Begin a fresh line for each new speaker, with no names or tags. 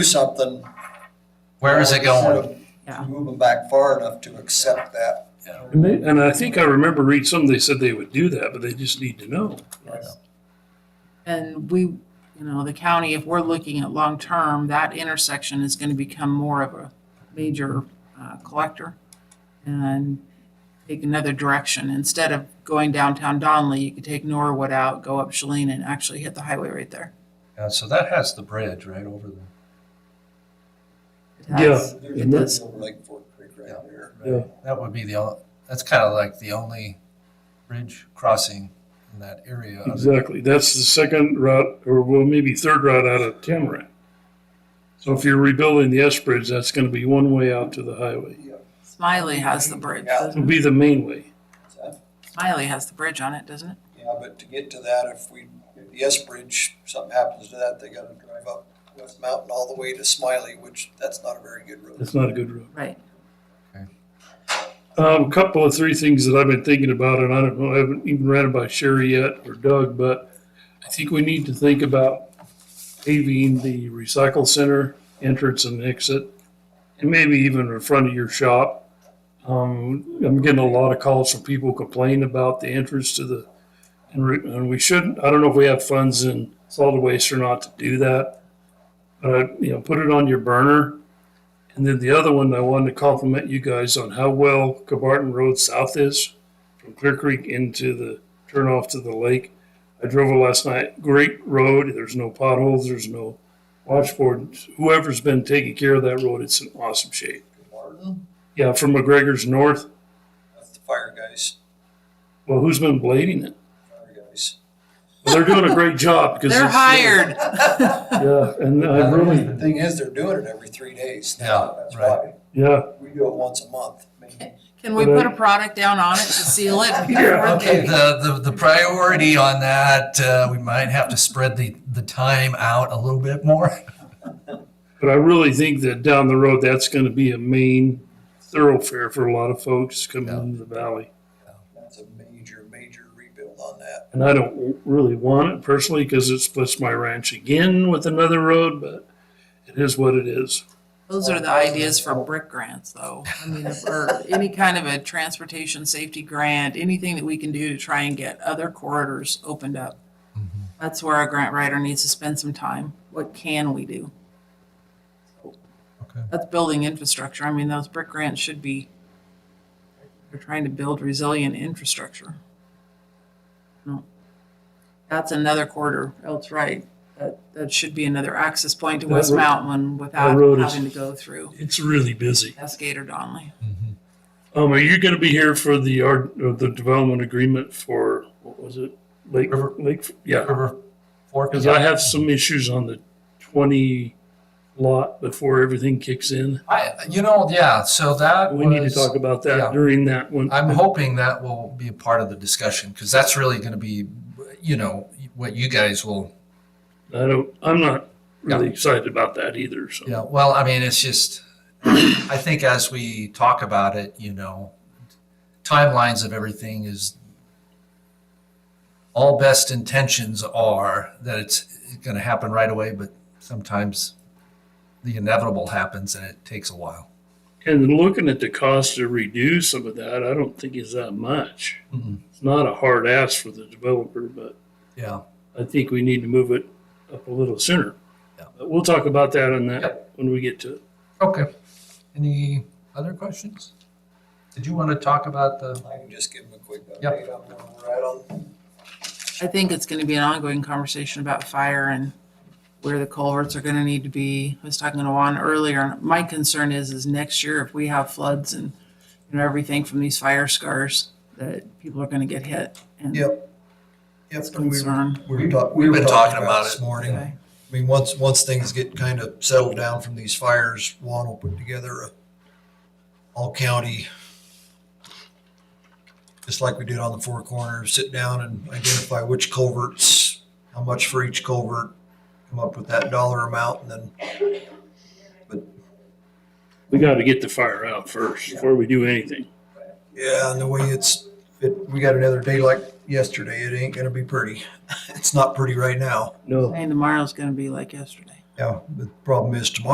do something.
Where is it going?
Yeah.
Move them back far enough to accept that.
And they, and I think I remember reading something, they said they would do that, but they just need to know.
And we, you know, the county, if we're looking at long-term, that intersection is gonna become more of a major uh, collector and take another direction. Instead of going downtown Donley, you could take Norwood out, go up Cheline and actually hit the highway right there.
Yeah, so that has the bridge right over there.
It
Yeah.
has-
There's a bridge
And that's-
over Lake Fork Creek right there.
Yeah.
That would be the, only. that's kind of like the only bridge crossing in that area.
Exactly. That's the second route, or well, maybe third route out of Tamarack. So if you're rebuilding the S Bridge, that's gonna be one way out to the highway.
Smiley has the bridge. doesn't
It'll be the main way.
it? Smiley has the bridge on it, doesn't it?
Yeah, but to get to that, if we, if the S Bridge, something happens to that, they gotta drive up West Mountain all the way to Smiley, which that's not a very good road.
That's not a good road.
Right.
Um, a couple of three things that I've been thinking about, and I don't know, I haven't even read about Sherry yet or Doug, but I think we need to think about paving the recycle center entrance and exit, and maybe even in front of your shop. Um, I'm getting a lot of calls from people complaining about the entrance to the, and, re, and we shouldn't, I don't know if we have funds in solid waste or not to do that. But, you know, put it on your burner. And then the other one, I wanted to compliment you guys on how well Cabarton Road South is from Clear Creek into the turnoff to the lake. I drove it last night. Great road. There's no potholes. There's no washboard. Whoever's been taking care of that road, it's in awesome shape.
Martin,
Yeah, from McGregor's North.
that's the fire guys,
Well, who's been blading it?
fire guys.
Well, they're doing a great job because
They're
it's-
hired.
Yeah, and I
Uh, The
really,
thing is, they're doing it every three days
Yeah,
now, that's why.
right.
yeah,
We do it once a month. maybe.
Can we put a product down on it to seal it?
Yeah,
Okay, the, the, the priority on that, uh, we might have to spread the, the time out a little bit more.
but I really think that down the road, that's going to be a main thoroughfare for a lot of folks coming
Yeah.
into the valley.
That's a major, major rebuild on that.
And I don't really want it personally because it splits my ranch again with another road, but it is what it is.
Those are the ideas for brick grants, though. I mean, if- or any kind of a transportation safety grant, anything that we can do to try and get other corridors opened up.
Mm-hmm.
That's where our grant writer needs to spend some time. What can we do?
Okay.
That's building infrastructure. I mean, those brick grants should be, they're trying to build resilient infrastructure. No. That's another corridor. That's right. That, that should be another access point to
That
West
road-
Mountain without
road is-
having to go through.
It's really busy.
Cascade or Donley.
Mm-hmm.
Um, are you going to be here for the yard, or the development agreement for, what was it? Lake,
River-
Lake, yeah.
River Fork.
Because I have some issues on the twenty lot before everything kicks in.
I, you know, yeah, so that
We need to
was-
talk about
yeah.
that during that one.
I'm hoping that will be a part of the discussion because that's really going to be, you know, what you guys will.
I don't, I'm not really
Yeah.
excited about that either, so.
Yeah. Well, I mean, it's just, I think as we talk about it, you know, timelines of everything is all best intentions are that it's going to happen right away, but sometimes the inevitable happens and it takes a while.
And looking at the cost to redo some of that, I don't think is that much.
Mhm.
It's not a hard ask for the developer, but
Yeah.
I think we need to move it up a little sooner.
Yeah.
But we'll talk about that on that
Yep.
when we get to it.
Okay. Any other questions? Did you want to talk about the?
I can just give them a quick
Yep.
update on where we're at on.
I think it's gonna be an ongoing conversation about fire and where the culverts are gonna need to be. I was talking to Juan earlier, and my concern is, is next year if we have floods and, you know, everything from these fire scars, that people are gonna get hit. And
Yep. Yep.
it's a concern.
We were talk- we
We've
were
been talking about
this
it.
morning.
Okay.
I mean, once, once things get kind of settled down from these fires, Juan will put together a all-county, just like we did on the Four Corners, sit down and identify which culverts, how much for each culvert, come up with that dollar amount, and then
We got to get the fire out first before we do anything.
Yeah, and the way it's, it, we got another day like yesterday. It ain't gonna be pretty. It's not pretty right now.
No.
And tomorrow's gonna be like yesterday.
Yeah, the problem is tomorrow.